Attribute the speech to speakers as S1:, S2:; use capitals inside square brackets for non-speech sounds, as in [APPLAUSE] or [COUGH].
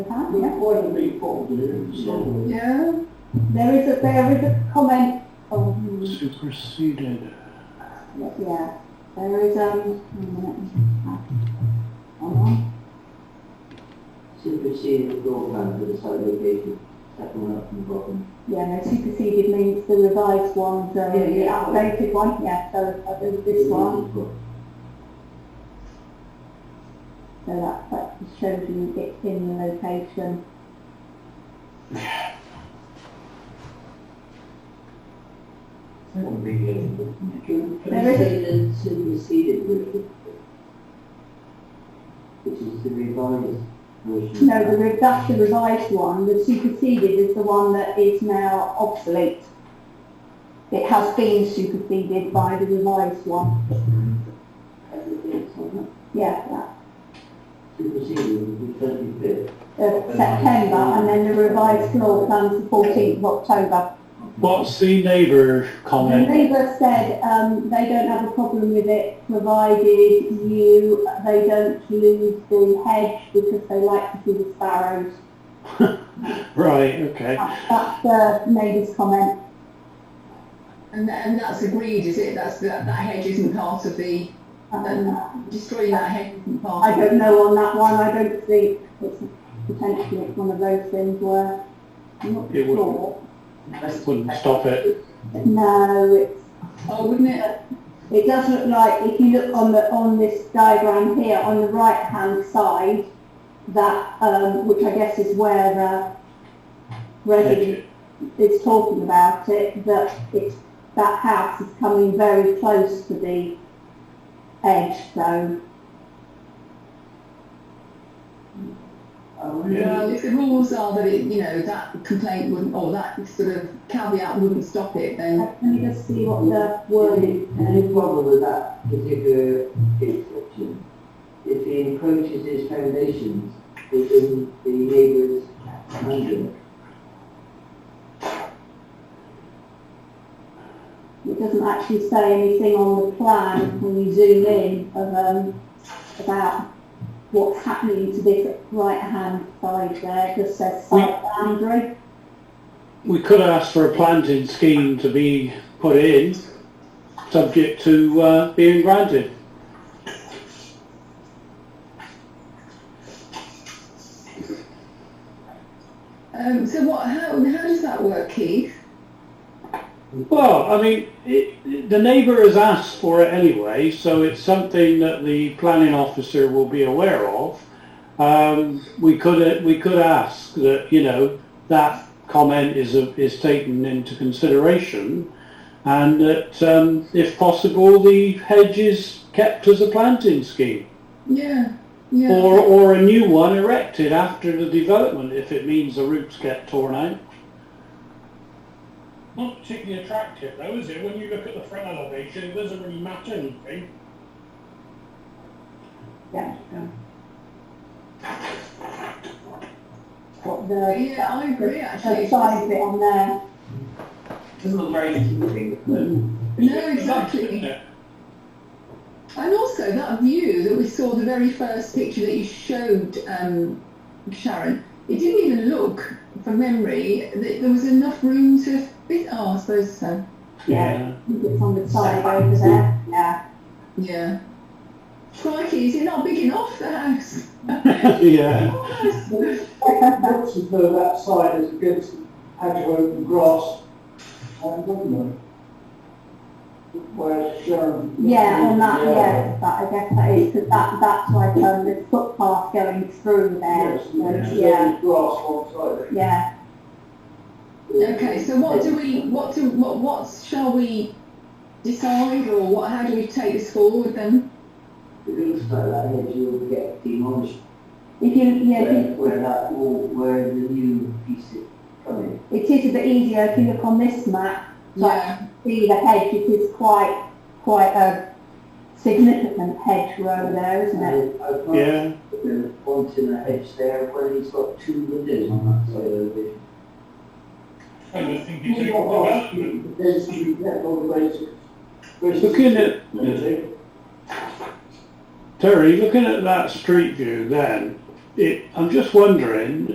S1: Huh?
S2: The employee people do, so
S1: No, there is a, there is a comment, oh, hmm,
S3: superseded.
S1: yeah, there is, um, wait a minute. Hold on.
S2: superseded the goal plan for the site location, second one up from the bottom.
S1: yeah, no, superseded means the revised one, so
S2: Yeah,
S1: the
S2: yeah.
S1: updated one, yeah, so uh, there's this one, so that, that just shows you it's in the location.
S2: Second big issue. Can
S1: There
S2: you
S1: is-
S2: say that superseded version? Which is the revised version?
S1: No, the, re- that's the revised one, the superseded is the one that is now obsolete. It has been superseded by the revised one,
S2: As it is, so not
S1: yeah, that.
S2: Superseded, the thirty-fifth.
S1: of September, and then the revised floor plan's the fourteenth of October.
S3: What's the neighbour
S1: And
S3: comment?
S1: Labour said, um, they don't have a problem with it, provided you, they don't lose the hedge, because they like to see the sparrows.
S3: Right, okay.
S1: That- That's the neighbour's comment.
S4: And, tha- and that's agreed, is it? That's, that, that hedge isn't part of the,
S1: Um,
S4: destroying that hedge isn't part
S1: I
S4: of
S1: don't know on that one, I don't see, it's potentially it's one of those things where, I'm not
S3: It would-
S1: sure.
S3: Wouldn't stop it.
S1: No, it's
S4: Oh, wouldn't it?
S1: It does look like, if you look on the, on this diagram here, on the right-hand side, that, um, which I guess is where the resident is talking about it, that it's, that house is coming very close to the edge, so,
S2: Oh,
S4: Well, if the rules are that it, you know, that complaint wouldn't, or that sort of caveat wouldn't stop it, then
S1: let me just see what the word is.
S2: Any problem with that particular exception, if he encroaches his foundations within the neighbour's mansion,
S1: It doesn't actually say anything on the plan when you zoom in of, um, about what's happening to this right-hand side there, It just says site boundary.
S3: We could ask for a planting scheme to be put in, subject to uh, being granted.
S4: um, so what? How how does that work, Keith?
S3: Well, I mean, it, it- the neighbour has asked for it anyway, so it's something that the planning officer will be aware of. Um, we could, we could ask that, you know, that comment is, a- is taken into consideration and that, um, if possible, the hedge is kept as a planting scheme
S4: Yeah, yeah.
S3: or, or a new one erected after the development if it means the roots get torn out.
S5: not particularly attractive though, is it? When you look at the front elevation, it doesn't really matter anything.
S1: Yeah. What the,
S4: yeah, I agree. Actually,
S1: the size bit on there.
S2: doesn't look very significant.
S4: no,
S5: Isn't
S4: exactly.
S5: it?
S4: And also that view that we saw the very first picture that you showed, um, Sharon. It didn't even look, from memory, that there was enough room to fit. Oh, I suppose so.
S1: Yeah. I think It's on the side over there, yeah.
S4: Yeah. Crikey, is it not big enough, the house?
S3: [LAUGHS]
S4: Oh,
S3: Yeah.
S2: Looks as though that side is against agio open grass and woodland. Where Sharon.
S1: Yeah, on that, yeah, that, I guess that is, 'cause that, that's like, um, the footpath going through there,
S2: Yes, there's
S1: yeah,
S2: grass on side.
S1: yeah.
S4: Okay, so what do we, what do, what, what shall we decide or what, how do we take this forward then?
S2: It looks like that hedge will get demolished
S1: If you, yeah, if
S2: where,
S1: you-
S2: where that wall, where the new piece is coming.
S1: it is a bit easier if you look on this map, like
S4: Yeah,
S1: see the hedge, it is quite, quite a significant hedge row there, isn't it?
S2: And I've not
S3: Yeah.
S2: the ones in the hedge there where he's got two windows on that side of it.
S5: I don't think it's a good development.
S2: There's three, that all the way to.
S3: Looking at Terry, looking at that street view, then it, I'm just wondering